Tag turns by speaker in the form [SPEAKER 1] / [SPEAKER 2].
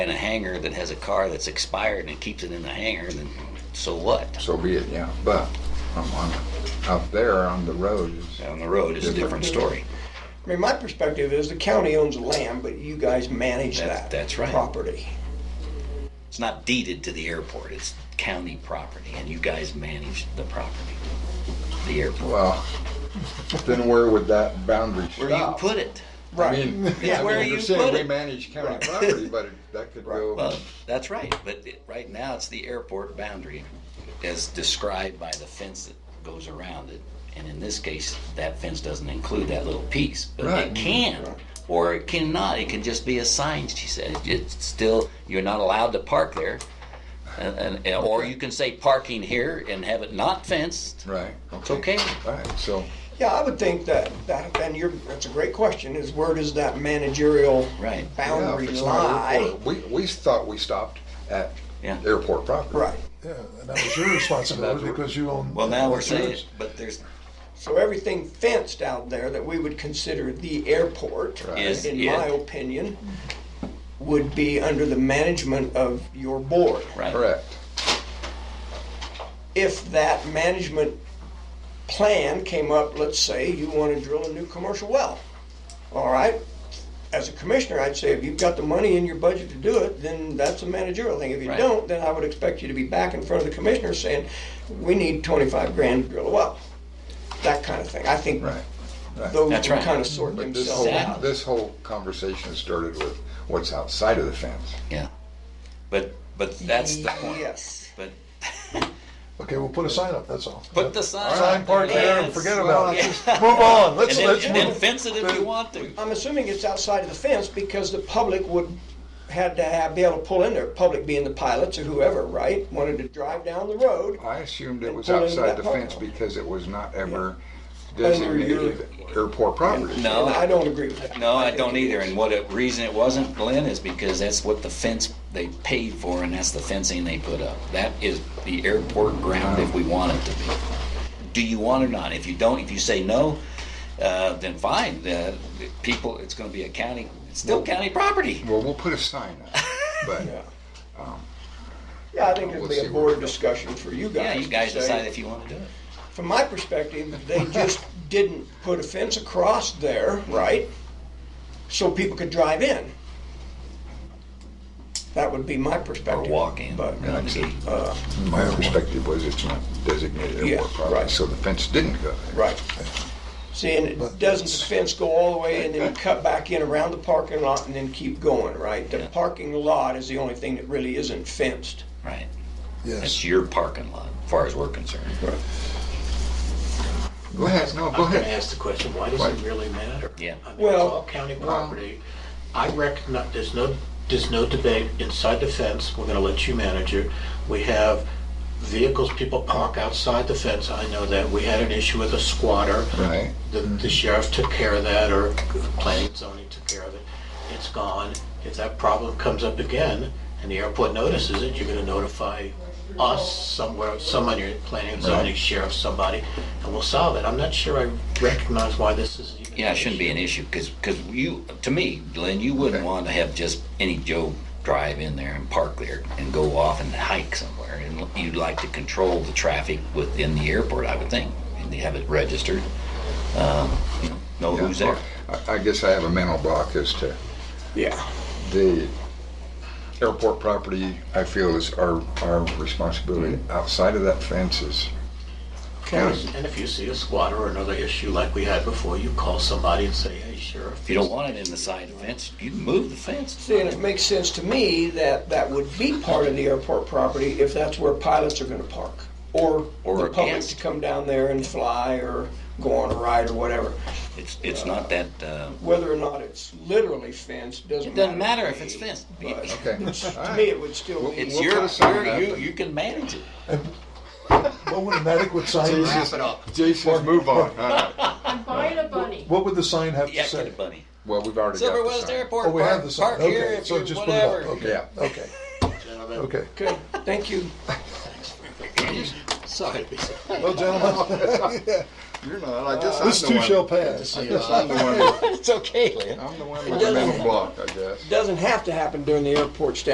[SPEAKER 1] hangar that has a car that's expired and keeps it in the hangar, then so what?
[SPEAKER 2] So be it, yeah. But um, on, up there on the road is,
[SPEAKER 1] On the road is a different story.
[SPEAKER 3] I mean, my perspective is the county owns the land, but you guys manage
[SPEAKER 1] That's-
[SPEAKER 3] that.
[SPEAKER 1] that's right.
[SPEAKER 3] Property.
[SPEAKER 1] It's not deeded to the airport, it's county property, and you guys manage the property, the airport.
[SPEAKER 2] well, then where would that boundary stop?
[SPEAKER 1] Where you put it.
[SPEAKER 2] I
[SPEAKER 3] Right.
[SPEAKER 2] mean,
[SPEAKER 3] Yeah,
[SPEAKER 2] I
[SPEAKER 1] where
[SPEAKER 2] mean,
[SPEAKER 1] you
[SPEAKER 2] you're saying
[SPEAKER 1] put
[SPEAKER 2] we
[SPEAKER 1] it.
[SPEAKER 2] manage county property, but it- that could go,
[SPEAKER 1] Well, that's right, but it- right now it's the airport boundary as described by the fence that goes around it. And in this case, that fence doesn't include that little piece, but
[SPEAKER 2] Right.
[SPEAKER 1] it can, or it cannot, it can just be a sign, she said. It's still, you're not allowed to park there. And, and- and, or you can say parking here and have it not fenced.
[SPEAKER 2] right?
[SPEAKER 1] It's okay.
[SPEAKER 2] Right, so,
[SPEAKER 3] Yeah, I would think that, that, then you're, that's a great question, is where does that managerial
[SPEAKER 1] Right.
[SPEAKER 2] yeah, if
[SPEAKER 3] boundary
[SPEAKER 2] it's not
[SPEAKER 3] lie?
[SPEAKER 2] airport, we, we thought we stopped at
[SPEAKER 1] Yeah.
[SPEAKER 2] airport property.
[SPEAKER 3] Right.
[SPEAKER 4] Yeah, and that was your responsibility
[SPEAKER 2] That's-
[SPEAKER 4] because you own.
[SPEAKER 1] Well, now we're saying,
[SPEAKER 4] insurance.
[SPEAKER 1] but there's,
[SPEAKER 3] So everything fenced out there that we would consider the airport,
[SPEAKER 2] Right.
[SPEAKER 1] Is
[SPEAKER 3] in
[SPEAKER 1] it-
[SPEAKER 3] my opinion, would be under the management of your board.
[SPEAKER 1] right,
[SPEAKER 2] Correct.
[SPEAKER 3] If that management plan came up, let's say you want to drill a new commercial well, all right? As a commissioner, I'd say if you've got the money in your budget to do it, then that's a managerial thing. If you
[SPEAKER 1] Right.
[SPEAKER 3] don't, then I would expect you to be back in front of the commissioner saying, we need 25 grand to drill a well. That kind of thing. I think
[SPEAKER 2] Right. Right.
[SPEAKER 3] those would
[SPEAKER 1] That's right.
[SPEAKER 3] kind of sort
[SPEAKER 2] But this
[SPEAKER 3] themselves
[SPEAKER 2] whole,
[SPEAKER 3] out.
[SPEAKER 2] this whole conversation started with what's outside of the fence.
[SPEAKER 1] yeah. But, but that's the point.
[SPEAKER 3] Yes.
[SPEAKER 1] But
[SPEAKER 4] Okay, we'll put a sign up, that's all.
[SPEAKER 1] put the sign.
[SPEAKER 4] Sign
[SPEAKER 1] up
[SPEAKER 4] part there and
[SPEAKER 1] yes.
[SPEAKER 4] forget
[SPEAKER 2] Well,
[SPEAKER 4] about it.
[SPEAKER 1] yeah.
[SPEAKER 4] Just move on, let's,
[SPEAKER 1] And then,
[SPEAKER 4] let's
[SPEAKER 1] and then
[SPEAKER 4] move.
[SPEAKER 1] fence it if you want to.
[SPEAKER 3] I'm assuming it's outside of the fence because the public would, had to have, be able to pull in there, public being the pilots or whoever, right? Wanted to drive down the road.
[SPEAKER 2] I assumed it
[SPEAKER 3] And
[SPEAKER 2] was
[SPEAKER 3] pull into
[SPEAKER 2] outside
[SPEAKER 3] that
[SPEAKER 2] the
[SPEAKER 3] park.
[SPEAKER 2] fence because it was not ever
[SPEAKER 3] your-
[SPEAKER 2] designated airport property.
[SPEAKER 3] And I
[SPEAKER 1] No,
[SPEAKER 3] don't agree with that.
[SPEAKER 1] no, I
[SPEAKER 3] think
[SPEAKER 1] don't
[SPEAKER 3] it
[SPEAKER 1] either.
[SPEAKER 3] is.
[SPEAKER 1] And what a reason it wasn't, Glenn, is because that's what the fence they paid for, and that's the fencing they put up. That is the airport ground if we want it to be. Do you want it or not? If you don't, if you say no, uh, then fine. Uh, the people, it's going to be a county, it's still county property.
[SPEAKER 2] Well, we'll put a sign up, but
[SPEAKER 3] Yeah. Yeah, I think it'd
[SPEAKER 2] Um, We'll
[SPEAKER 3] be
[SPEAKER 2] see
[SPEAKER 3] a
[SPEAKER 2] where-
[SPEAKER 3] board discussion for you guys.
[SPEAKER 1] Yeah, you
[SPEAKER 3] to
[SPEAKER 1] guys
[SPEAKER 3] say,
[SPEAKER 1] decide if you want to do it.
[SPEAKER 3] From my perspective, they just didn't put a fence across there, right? So people could drive in. That would be my
[SPEAKER 1] Or
[SPEAKER 3] perspective.
[SPEAKER 1] walk in.
[SPEAKER 3] But,
[SPEAKER 1] around the gate.
[SPEAKER 3] uh,
[SPEAKER 2] my perspective was it's not designated
[SPEAKER 3] Yeah,
[SPEAKER 2] airport property,
[SPEAKER 3] right.
[SPEAKER 2] so the fence didn't go there.
[SPEAKER 3] Right. See, and it doesn't the fence go all the way and then cut back in around the parking lot and then keep going, right? The
[SPEAKER 1] Yeah.
[SPEAKER 3] parking lot is the only thing that really isn't fenced.
[SPEAKER 1] Right. That's
[SPEAKER 4] Yes,
[SPEAKER 1] your parking lot, as far as we're concerned.
[SPEAKER 2] Go ahead, no, go
[SPEAKER 5] I'm gonna
[SPEAKER 2] ahead.
[SPEAKER 5] ask the question, why does it really matter?
[SPEAKER 1] Yeah.
[SPEAKER 5] I mean, it's
[SPEAKER 3] Well-
[SPEAKER 5] all county property. I recognize, there's no, there's no debate inside the fence, we're gonna let you manage it. We have vehicles, people park outside the fence, I know that. We had an issue with a squatter.
[SPEAKER 2] Right.
[SPEAKER 5] The, the sheriff took care of that, or planning and zoning took care of it. It's gone. If that problem comes up again, and the airport notices it, you're gonna notify us somewhere, somebody, your planning and zoning, sheriff, somebody, and we'll solve it. I'm not sure I recognize why this is even.
[SPEAKER 1] Yeah, it shouldn't be an issue, because, you, to me, Glenn, you wouldn't
[SPEAKER 2] Okay.
[SPEAKER 1] want to have just any Joe drive in there and park there and go off and hike somewhere. And you'd like to control the traffic within the airport, I would think, and they have it registered. um, you Know know who's there.
[SPEAKER 2] I, I guess I have a mental block as to
[SPEAKER 3] Yeah.
[SPEAKER 2] the airport property, I feel is our, our responsibility.
[SPEAKER 3] Mm-hmm.
[SPEAKER 2] Outside of that fence is county.
[SPEAKER 5] And if you see a squatter or another issue like we had before, you call somebody and say, hey, sheriff.
[SPEAKER 1] If you don't want it in the side fence, you can move the fence.
[SPEAKER 3] See, and it makes sense to me that that would be part of the airport property if that's where pilots are gonna park. Or
[SPEAKER 1] Or
[SPEAKER 3] the public to
[SPEAKER 1] against.
[SPEAKER 3] come down there and fly or go on a ride or whatever.
[SPEAKER 1] It's, it's not that, uh,
[SPEAKER 3] Whether or not it's literally fenced doesn't
[SPEAKER 1] it
[SPEAKER 3] matter.
[SPEAKER 1] doesn't matter
[SPEAKER 3] to
[SPEAKER 1] if
[SPEAKER 3] me,
[SPEAKER 1] it's fenced.
[SPEAKER 3] but
[SPEAKER 2] Okay.
[SPEAKER 3] To me, it would still be.
[SPEAKER 1] It's
[SPEAKER 2] We'll
[SPEAKER 1] your,
[SPEAKER 2] put a sign
[SPEAKER 1] your-
[SPEAKER 2] up.
[SPEAKER 1] you, you can manage it.
[SPEAKER 4] what would an adequate sign,
[SPEAKER 2] it up. Jason, move on. All right.
[SPEAKER 6] I'm buying a bunny.
[SPEAKER 4] what would the sign have to
[SPEAKER 1] Yeah, get
[SPEAKER 4] say?
[SPEAKER 1] a bunny.
[SPEAKER 2] Well, we've already got
[SPEAKER 1] Silver
[SPEAKER 2] the
[SPEAKER 1] West
[SPEAKER 2] sign.
[SPEAKER 1] Airport,
[SPEAKER 4] Oh, we have
[SPEAKER 1] park,
[SPEAKER 4] the sign,
[SPEAKER 1] park here
[SPEAKER 4] okay,
[SPEAKER 1] if
[SPEAKER 4] so
[SPEAKER 1] you,
[SPEAKER 4] just put it up,
[SPEAKER 1] whatever.
[SPEAKER 4] okay, okay,
[SPEAKER 5] Gentlemen,
[SPEAKER 4] okay.
[SPEAKER 3] Okay, thank you.
[SPEAKER 1] Sorry.
[SPEAKER 4] Well, gentlemen,
[SPEAKER 2] You're not, I guess I'm the one.
[SPEAKER 4] this too shall pass.
[SPEAKER 2] I guess I'm the one,
[SPEAKER 1] It's okay, Lynn.
[SPEAKER 2] I'm the one with the mental block, I guess.
[SPEAKER 3] Doesn't have to happen during the airport staff